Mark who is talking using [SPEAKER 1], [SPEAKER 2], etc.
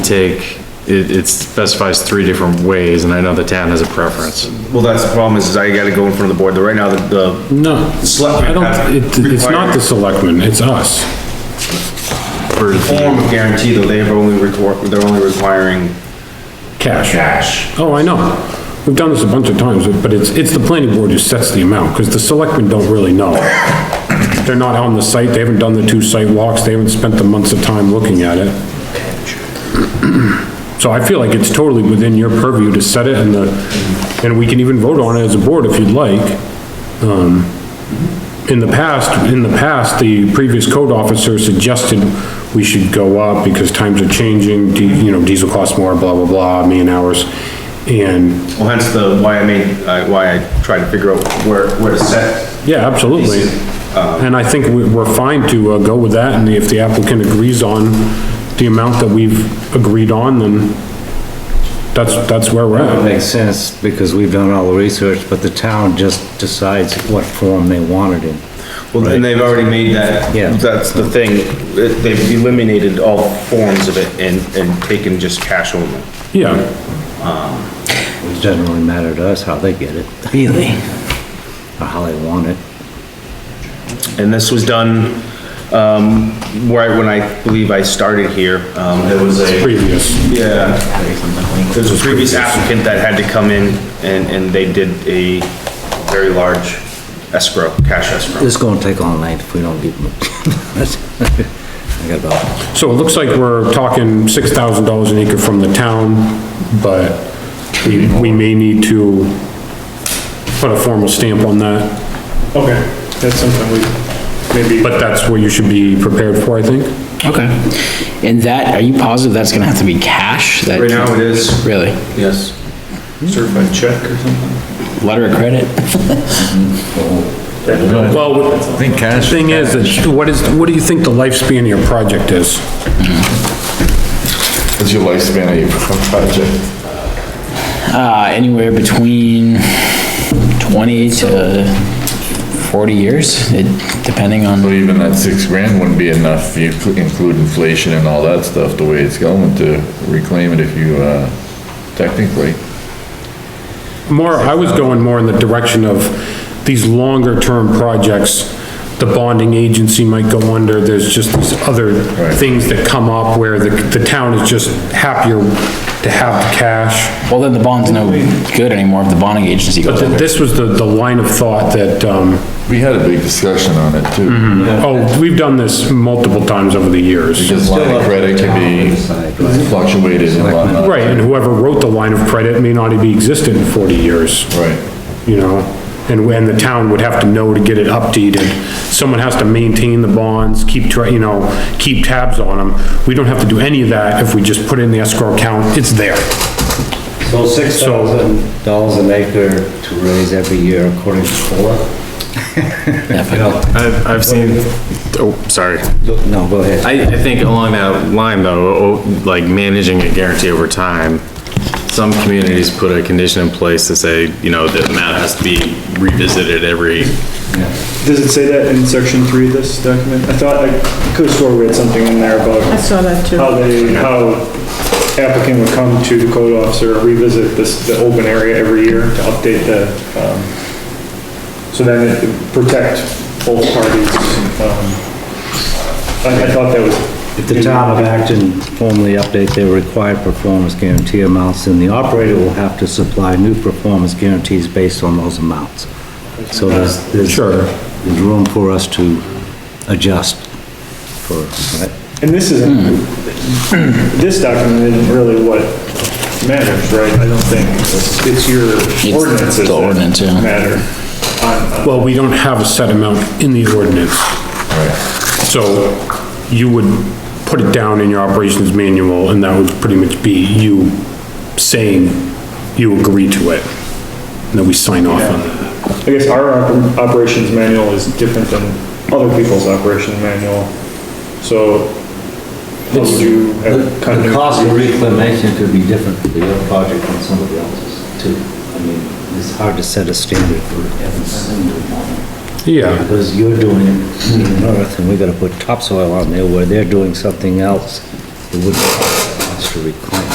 [SPEAKER 1] take, it, it specifies three different ways, and I know the town has a preference.
[SPEAKER 2] Well, that's the problem is, is I gotta go in front of the board, right now, the- the,
[SPEAKER 3] No,
[SPEAKER 2] Selectmen
[SPEAKER 3] I don't, it,
[SPEAKER 2] have
[SPEAKER 3] it's not the
[SPEAKER 2] required-
[SPEAKER 3] selectmen, it's us.
[SPEAKER 1] For
[SPEAKER 2] form of guarantee, though, they've only requir, they're only requiring
[SPEAKER 3] Cash.
[SPEAKER 2] cash.
[SPEAKER 3] Oh, I know. We've done this a bunch of times, but it's, it's the planning board who sets the amount, because the selectmen don't really know. They're not on the site, they haven't done the two site walks, they haven't spent the months of time looking at it. So I feel like it's totally within your purview to set it and the, and we can even vote on it as a board if you'd like. Um, In the past, in the past, the previous code officer suggested we should go up because times are changing, di- you know, diesel costs more, blah, blah, blah, man hours. And,
[SPEAKER 2] Well, hence the, why I made, I- why I tried to figure out where, where to set.
[SPEAKER 3] yeah, absolutely. And I think we- we're fine to uh, go with that and if the applicant agrees on the amount that we've agreed on, then that's, that's where we're
[SPEAKER 4] That
[SPEAKER 3] at.
[SPEAKER 4] makes sense, because we've done all the research, but the town just decides what form they want it in.
[SPEAKER 2] Well, and they've already made that.
[SPEAKER 4] Yeah.
[SPEAKER 2] That's the thing, it- they've eliminated all forms of it and, and taken just cash only.
[SPEAKER 3] Yeah.
[SPEAKER 4] It doesn't really matter to us how they get it,
[SPEAKER 5] Really?
[SPEAKER 4] or how they want it.
[SPEAKER 2] And this was done, um, right when I believe I started here, um, there was a.
[SPEAKER 3] previous.
[SPEAKER 2] Yeah. There's a previous applicant that had to come in and, and they did a very large escrow, cash escrow.
[SPEAKER 4] This is gonna take all night if we don't give them. I got about,
[SPEAKER 3] So it looks like we're talking six thousand dollars an acre from the town, but we, we may need to put a formal stamp on that,
[SPEAKER 6] Okay, that's something we, maybe,
[SPEAKER 3] but that's what you should be prepared for, I think.
[SPEAKER 5] Okay. And that, are you positive that's gonna have to be cash? That-
[SPEAKER 2] Right now it is,
[SPEAKER 5] Really?
[SPEAKER 2] yes.
[SPEAKER 6] certified check or something?
[SPEAKER 5] Letter of credit?
[SPEAKER 3] Well,
[SPEAKER 7] think
[SPEAKER 3] the
[SPEAKER 7] cash.
[SPEAKER 3] thing is, is what is, what do you think the lifespan of your project is?
[SPEAKER 7] What's your lifespan of your project?
[SPEAKER 5] Uh, anywhere between twenty to forty years, it, depending
[SPEAKER 7] So
[SPEAKER 5] on,
[SPEAKER 7] even that six grand wouldn't be enough, if you cl- include inflation and all that stuff, the way it's going to reclaim it if you, uh, technically.
[SPEAKER 3] More, I was going more in the direction of these longer term projects, the bonding agency might go under, there's just these other
[SPEAKER 7] Right.
[SPEAKER 3] things that come up where the, the town is just happier to have the cash.
[SPEAKER 5] well, then the bond's no good anymore if the bonding agency
[SPEAKER 3] But
[SPEAKER 5] goes
[SPEAKER 3] th-
[SPEAKER 5] under.
[SPEAKER 3] this was the, the line of thought that, um,
[SPEAKER 7] We had a big discussion on it too,
[SPEAKER 3] oh, we've done this multiple times over the years.
[SPEAKER 7] because line of credit can be fluctuated and whatnot.
[SPEAKER 3] Right, and whoever wrote the line of credit may not be existent in forty years.
[SPEAKER 7] Right,
[SPEAKER 3] you know? And when the town would have to know to get it updated, someone has to maintain the bonds, keep, tra- you know, keep tabs on them. We don't have to do any of that if we just put it in the escrow account, it's there.
[SPEAKER 4] so six thousand dollars an acre to raise every year according to COLA?
[SPEAKER 1] I've, I've seen, oh, sorry.
[SPEAKER 4] No, go ahead.
[SPEAKER 1] I, I think along that line though, oh, like managing a guarantee over time, some communities put a condition in place to say, you know, the amount has to be revisited every,
[SPEAKER 6] Does it say that in section three of this document? I thought, I could have swore we had something in there
[SPEAKER 8] I
[SPEAKER 6] about
[SPEAKER 8] saw that too.
[SPEAKER 6] how they, how applicant would come to the code officer, revisit this, the open area every year to update the, um, so then it protect both parties. um, I, I thought that was.
[SPEAKER 4] If the town of Acton formally update their required performance guarantee amounts, then the operator will have to supply new performance guarantees based on those amounts. So there's, there's, there's room for us to adjust for, right?
[SPEAKER 6] And this isn't, this document isn't really what matters, right? I don't think. It's your ordinances
[SPEAKER 5] the ordinance, yeah.
[SPEAKER 6] that matter. On-
[SPEAKER 3] Well, we don't have a set amount in the ordinance,
[SPEAKER 7] right.
[SPEAKER 3] so you would put it down in your operations manual, and that would pretty much be you saying you agree to it, and then we sign off on it.
[SPEAKER 6] I guess our op- operations manual is different than other people's operation manual, so what would you have kind of?
[SPEAKER 4] reclamation could be different for the other project than somebody else's too. I mean, it's hard to set a standard for everything.
[SPEAKER 3] Yeah.
[SPEAKER 4] Because you're doing it in earth, and we gotta put topsoil on there where they're doing something else. It wouldn't. amounts to reclaim.